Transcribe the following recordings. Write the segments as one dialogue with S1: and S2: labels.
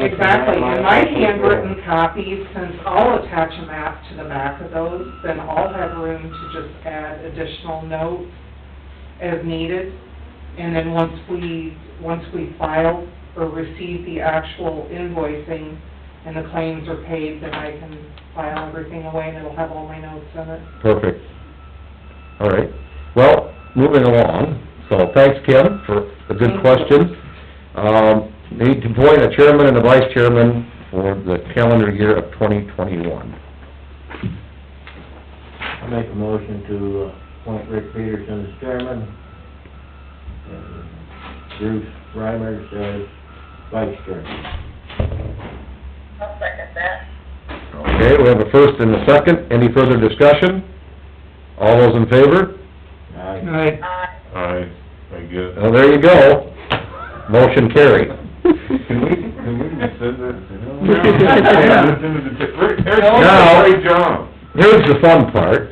S1: exactly, and my handwritten copies, since I'll attach a map to the back of those, then I'll have room to just add additional notes as needed. And then once we, once we file or receive the actual invoicing and the claims are paid, then I can file everything away and it'll have all my notes in it.
S2: Perfect. All right, well, moving along, so thanks, Kim, for the good questions. Um, need to appoint a chairman and a vice chairman for the calendar year of twenty twenty-one.
S3: I make a motion to uh, appoint Rick Peterson as chairman, and Bruce Reimer as vice chairman.
S4: I'll second that.
S2: Okay, we have a first and a second, any further discussion? All those in favor?
S3: Aye.
S1: Right.
S4: Aye.
S5: I, I guess.
S2: Well, there you go, motion carried.
S5: Can we, can we rescind that?
S2: No.
S5: Yeah, it's in the- Rick, Rick, you did
S2: No.
S5: a great job.
S2: Here's the fun part,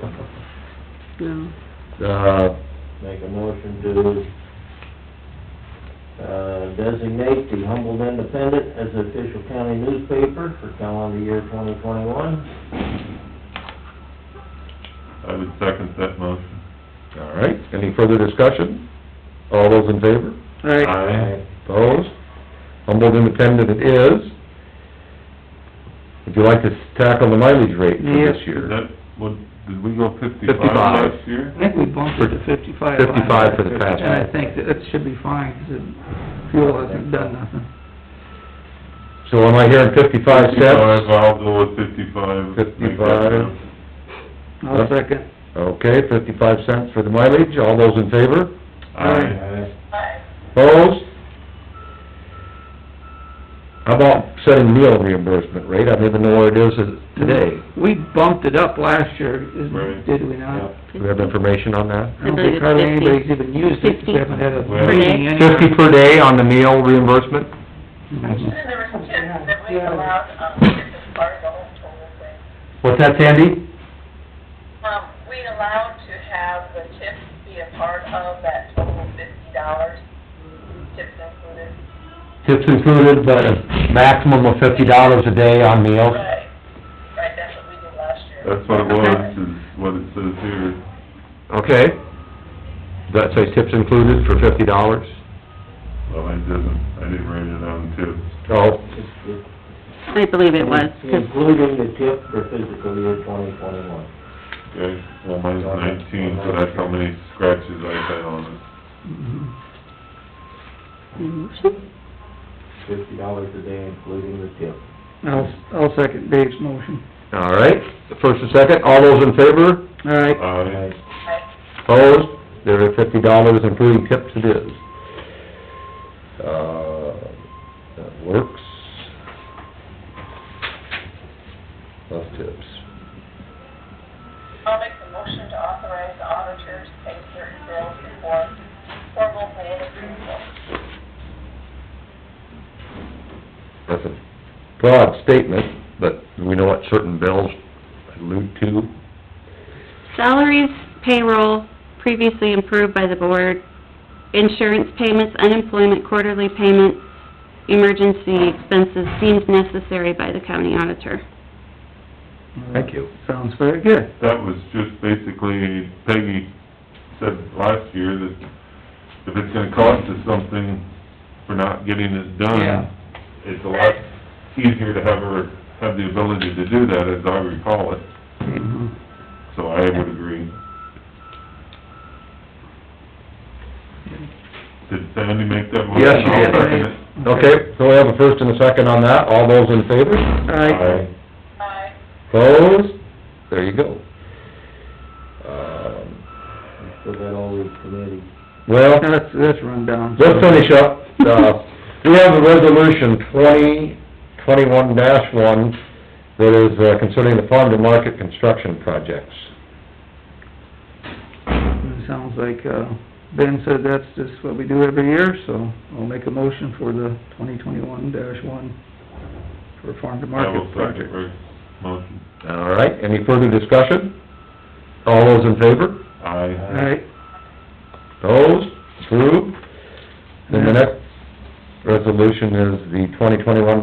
S2: uh,
S3: Make a motion to, uh, designate the Humboldt Independent as the official county newspaper for calendar year twenty twenty-one.
S5: I would second that motion.
S2: all right, any further discussion? All those in favor? Uh,
S5: Aye.
S2: Opposed? Humboldt Independent it is. Would you like to tackle the mileage rate for this
S5: Is
S2: year?
S5: that, what, did we go fifty-five
S2: 55.
S5: last year?
S6: I think we bumped it to fifty-five. last
S2: 55 for the
S6: year,
S2: past
S6: And I
S2: one.
S6: think that that should be fine, 'cause it, fuel hasn't done nothing.
S2: So am I hearing fifty-five
S5: Fifty-five,
S2: cents?
S5: I'll go with fifty-five. Make that
S2: 55.
S5: count.
S6: I'll second.
S2: Okay, fifty-five cents for the mileage, all those in favor?
S5: Aye.
S3: Aye.
S4: Aye.
S2: Opposed? How about setting meal reimbursement rate? I don't even know where it is today.
S6: We bumped it up last year,
S5: Right.
S6: isn't, did we not?
S3: Yep.
S2: Do we have information on that?
S6: I don't think hardly anybody's even used it, 'cause we haven't had a
S5: Well-
S6: meeting anyway.
S2: Fifty per day on the meal reimbursement?
S4: And
S6: Mhm.
S4: there was kids that we
S1: Yeah.
S4: allowed, um, as part of the whole total thing.
S2: What's that, Sandy?
S4: Um, we allowed to have the tips be a part of that total fifty dollars, tips included.
S2: Tips included, but a maximum of fifty dollars a day on meals.
S4: Right, right, that's what we did last year.
S5: That's what it was, is what it says here.
S2: Okay. Does that say tips included for fifty dollars?
S5: Well, I didn't, I didn't write it down too.
S2: Oh,
S3: It's- it's-
S7: I believe it was, 'cause
S3: Including the tip for physical year twenty twenty-one.
S5: Okay, well, mine's nineteen, so that's how many scratches I had on it.
S6: Mhm.
S7: Motion?
S3: Fifty dollars a day including the tip.
S6: I'll, I'll second Dave's motion.
S2: all right. First and second, all those in favor?
S6: All right,
S2: Uh,
S5: Aye.
S4: Right.
S2: Opposed? There are fifty dollars including tips it is. Uh, that works. Love tips.
S4: I'll make the motion to authorize the auditor to pay certain bills before formal plan approval.
S2: That's a broad statement, but we know what certain bills allude to.
S7: Salaries, payroll, previously approved by the board, insurance payments, unemployment quarterly payments, emergency expenses deemed necessary by the county auditor.
S6: thank you. Sounds very good.
S5: That was just basically Peggy said last year that if it's gonna cost us something for not getting it
S6: Yeah.
S5: done, it's a lot easier to have her, have the ability to do that, as I recall it,
S6: Mhm.
S5: so I would agree. Did Sandy make that motion?
S2: Yes, you
S5: I'll
S2: did.
S5: second it.
S2: Okay, so we have a first and a second on that. All those in favor?
S6: Aye.
S4: Aye.
S2: Opposed? There you go. Um,
S3: So that all these committees.
S2: Well,
S6: Now, That's, that's run down.
S2: let's finish up. Uh, We have a resolution twenty, twenty-one dash one that is uh, concerning the farm to market construction projects.
S6: It sounds like, uh, Ben said that's just what we do every year, so I'll make a motion for the twenty twenty-one one for farm to
S5: I
S6: market
S5: will second
S6: project.
S5: Rick's motion.
S2: All right, any further discussion? All those in favor?
S6: All
S5: Aye.
S6: right,
S2: Opposed? Approved? Then the next resolution is the twenty twenty-one